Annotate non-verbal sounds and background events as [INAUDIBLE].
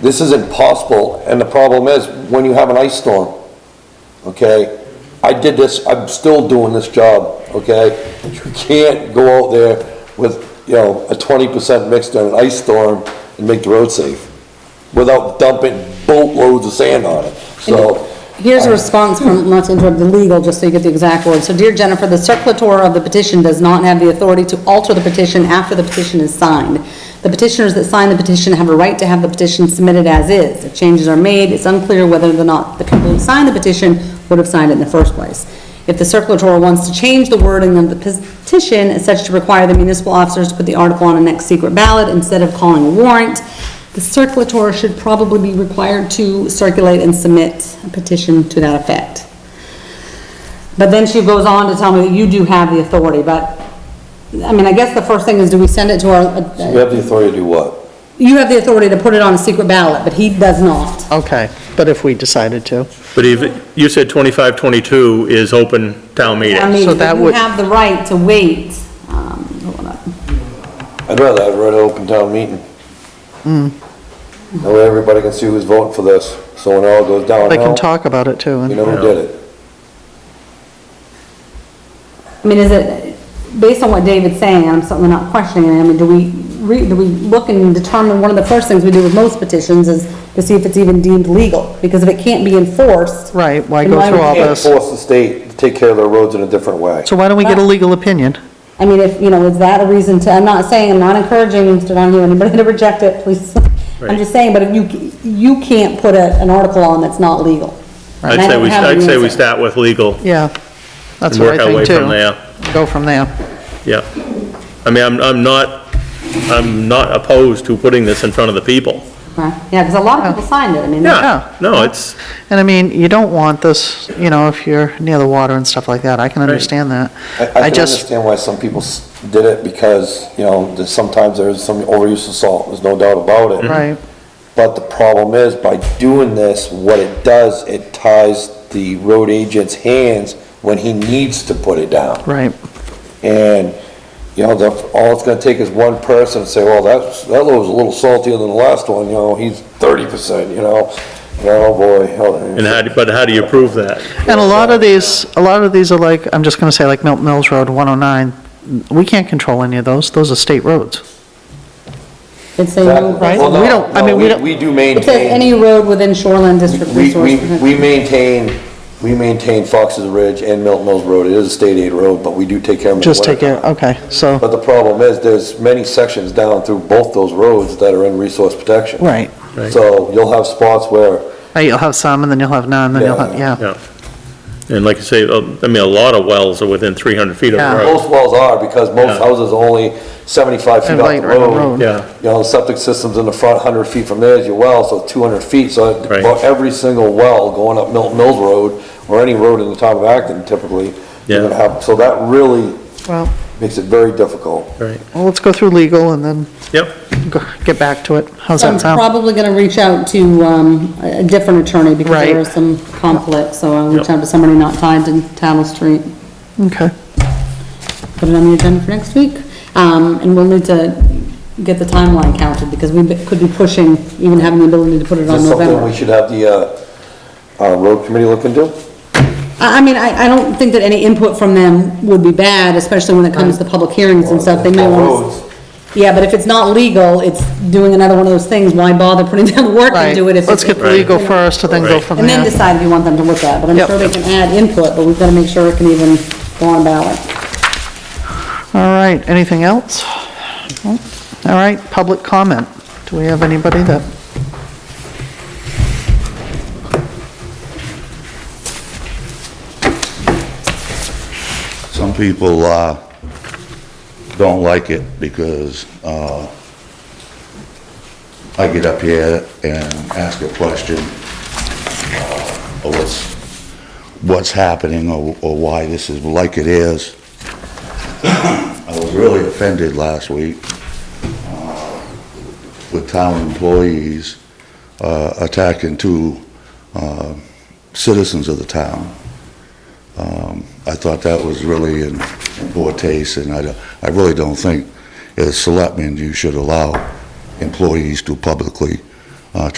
This is impossible, and the problem is, when you have an ice storm, okay? I did this, I'm still doing this job, okay? You can't go out there with, you know, a twenty percent mix on an ice storm and make the road safe without dumping boatloads of sand on it, so. Here's a response from, not to interrupt the legal, just so you get the exact word. So dear Jennifer, the circulator of the petition does not have the authority to alter the petition after the petition is signed. The petitioners that sign the petition have a right to have the petition submitted as is. If changes are made, it's unclear whether or not the people who signed the petition would have signed it in the first place. If the circulator wants to change the wording of the petition, as such to require the municipal officers to put the article on a next secret ballot instead of calling a warrant, the circulator should probably be required to circulate and submit a petition to that effect. But then she goes on to tell me that you do have the authority, but, I mean, I guess the first thing is, do we send it to You our, have the authority to do what? you have the authority to put it on a secret ballot, but he does not. Okay, but if we decided to. But if, you said 25, 22 is open town I meeting. mean, So that you would- have the right to wait, um, hold on. I'd rather have it at an open town meeting. Hmm. That way everybody can see who's voting for this, so when it all goes They downhill, can talk about it too. you and- know who did it. I mean, is it, based on what David's saying, I'm certainly not questioning it, I mean, do we, re- do we look and determine, one of the first things we do with most petitions is to see if it's even deemed legal, because if it can't be enforced. Right, why then go through would all we- this? Can't force the state to take care of their roads in a different way. So why don't we get a legal opinion? I mean, if, you know, is that a reason to, I'm not saying, I'm not encouraging Mr. Donahue, anybody [LAUGHS] to reject it, please. I'm Right. just saying, but if you, you can't put a, an article on that's not legal. I'd And I say don't we, have an I'd say we answer. start with legal Yeah, that's and what work I our way think too. from there. Go from there. Yeah. I mean, I'm, I'm not, I'm not opposed to putting this in front of the people. Right, yeah, because a lot of Oh. people signed it, I mean. Yeah, no, it's, And I mean, you don't want this, you know, if you're near the water and stuff like that, I can understand that. I, I I can just, understand why some people s- did it because, you know, there's sometimes there is some overuse of salt, there's no doubt about it. right, But the problem is, by doing this, what it does, it ties the road agent's hands when he needs to put it down. right, And, you know, the, all it's gonna take is one person to say, well, that's, that load was a little saltier than the last one, you know, he's thirty percent, you know? And, Oh, boy. oh, and how, do- but how do you prove that? And a lot of these, a lot of these are like, I'm just gonna say like Milton Mills Road, 109, we can't control any of those, those are state roads. It's a, Exactly. Well, We no, don't- I no, mean, we don't- We do it says maintain, any road within shoreline district we, resource. we, we maintain, we maintain Fox's Ridge and Milton Mills Road. It is a state aid road, but we do take care of it. in the Just take winter. it, okay, so, But the problem is, there's many sections down through both those roads that are in resource protection. right. Right. So you'll have spots where Right, You'll have some, and then you'll have none, then you'll have, Yeah. yeah, Yeah. And like I say, uh, I mean, a lot of wells are within 300 feet of the Yeah. road. Most wells are, because most Yeah. houses are only 75 feet And off right the on the road. road. Yeah. You know, the septic system's in the front, 100 feet from there is your well, so 200 feet, so Right. about every single well going up Milton Mills Road, or any road in the town of Acton typically, you're Yeah. gonna have, so that really well, makes it very difficult. Right, well, let's go through legal and then yep. go- get back to it, how's I'm that sound? probably gonna reach out to, um, a a different attorney because there Right. is some conflict, so I'll reach Yep. out to somebody not tied to Tattle Street. Okay, Put it on the agenda for next week. Um, and we'll need to get the timeline counted because we be- could be pushing, even having the ability to put it Is on this something November. we should have the, uh, uh, road committee look into? I, I mean, I, I don't think that any input from them would be bad, especially when it comes to public hearings and stuff. They may want Roads. to. Yeah, but if it's not legal, it's doing another one of those things, why bother putting down the work and right, do it if it's. let's get the legal first, and then go Right. from And then there. decide if you want them to look at, but I'm Yep. sure they can add input, but we've gotta make sure it can even go on ballot. All right, anything else? All right, public comment, do we have anybody that, Some people uh, don't like it because uh, I get up here and ask a question uh, of what's, what's happening or or why this is like it is. [COUGHS] I was really offended last week uh, with town employees uh, attacking two uh, citizens of the town. I thought that was really in in poor taste, and I, don't- I really don't think, as selectmen, you should allow employees to publicly